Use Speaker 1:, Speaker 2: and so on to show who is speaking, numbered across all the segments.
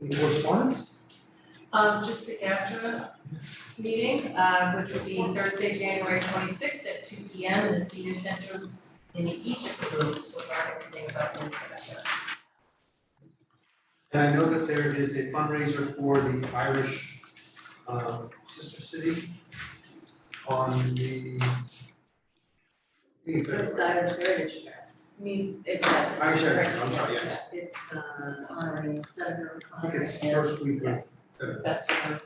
Speaker 1: Any correspondence?
Speaker 2: Um, just the GATRA meeting, uh, which will be Thursday, January twenty-sixth at two P M in the Senior Center in the Egypt Room, so learn everything about the GATRA.
Speaker 1: And I know that there is a fundraiser for the Irish um, Sister City on the
Speaker 3: It's the Irish Heritage Trail. I mean, it's. a-
Speaker 1: Irish Heritage Trail, I'm sorry, yes.
Speaker 3: It's, uh, it's honoring Senator
Speaker 1: I think
Speaker 3: O'Connor
Speaker 1: it's
Speaker 3: and
Speaker 1: first week of February.
Speaker 3: Professor.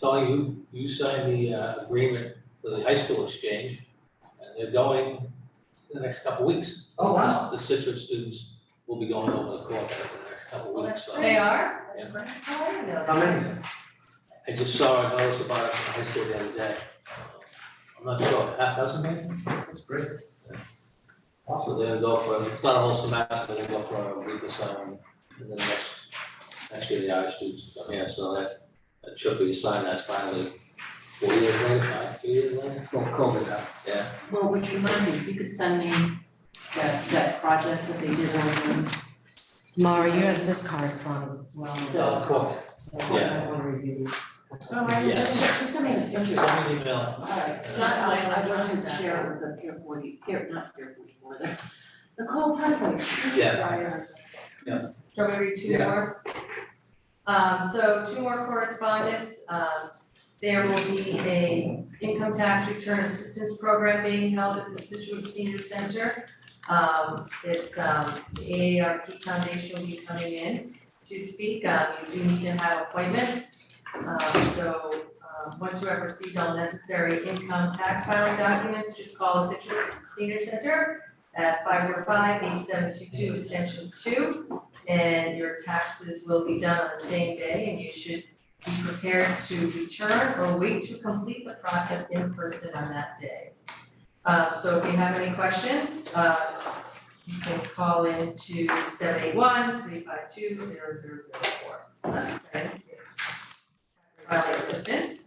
Speaker 4: Tony, you, you signed the uh, agreement for the high school exchange, and they're going in the next couple of weeks.
Speaker 1: Oh, wow.
Speaker 4: The Citrus students will be going over the court in the next couple of weeks, so.
Speaker 2: They are?
Speaker 4: That's
Speaker 2: great. How do you know that?
Speaker 1: How many?
Speaker 4: I just saw a notice about it in high school the other day. I'm not sure, half dozen maybe?
Speaker 1: That's great.
Speaker 4: So they'll go for, it's not a whole semester, they'll go for a week or so, and then next, next year the Irish students come here, so that, that trip we signed, that's finally four years later, five, three years later,
Speaker 1: Well, COVID out.
Speaker 4: yeah.
Speaker 3: Well, which reminds me, if you could send me that, that project that they did on the.
Speaker 5: Mara, you have this correspondence as well.
Speaker 4: Uh, Cork.
Speaker 5: So I want to review these.
Speaker 3: Oh, I
Speaker 4: Yes.
Speaker 3: just, just send me an
Speaker 4: Send me
Speaker 3: interest.
Speaker 4: an email.
Speaker 3: Alright,
Speaker 4: It's
Speaker 2: not mine, I
Speaker 3: I'd like
Speaker 2: found
Speaker 3: to
Speaker 2: that.
Speaker 3: share with the Pier forty, Pier, not Pier forty four, the, the Cole Tugway.
Speaker 4: Yeah.
Speaker 2: Do you want me to read two
Speaker 1: Yeah.
Speaker 2: more? Um, so two more correspondence, um, there will be a income tax return assistance program being held at the Situate Senior Center. Um, it's, um, the AARP Foundation will be coming in to speak, um, you do need to have appointments. Um, so, um, once you have received all necessary income tax filing documents, just call the Citrus Senior Center at 545 five eight seven two two, extension two and your taxes will be done on the same day and you should be prepared to return or wait to complete the process in person on that day. Uh, so if you have any questions, uh, you can call in to seven eight one three five two zero zero zero four. That's exciting. Filing assistance.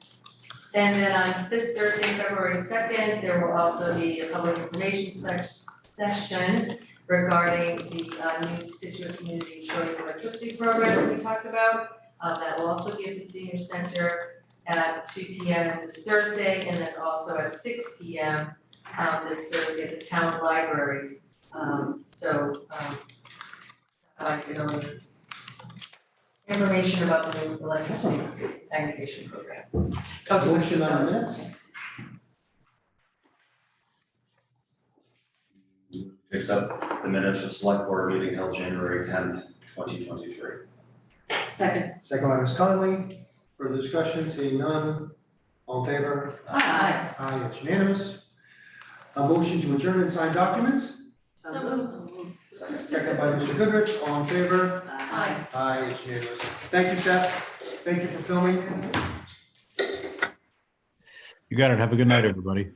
Speaker 2: And then on this Thursday, February second, there will also be a public information sec- session regarding the uh, new Situate Community Choice Electricity Program that we talked about. Uh, That will also be at the senior center at two P M this Thursday and then also at six P M um, this Thursday at the town library. Um, So um, I can only information about the new electricity aggregation program. Oh, sorry.
Speaker 1: Motion on minutes?
Speaker 6: Next up, the minutes for select board meeting held January tenth, twenty twenty-three.
Speaker 3: Second.
Speaker 1: Second by Ms. Conley, further discussion, seeing none, all in favor?
Speaker 3: Aye.
Speaker 1: Aye, it's unanimous. A motion to adjourn and sign documents,
Speaker 3: So moved.
Speaker 1: second by Mr. Goodrich, all in favor?
Speaker 3: Aye.
Speaker 1: Aye, it's unanimous. Thank you, Seth, thank you for filming.
Speaker 7: You got it. Have a good night, everybody.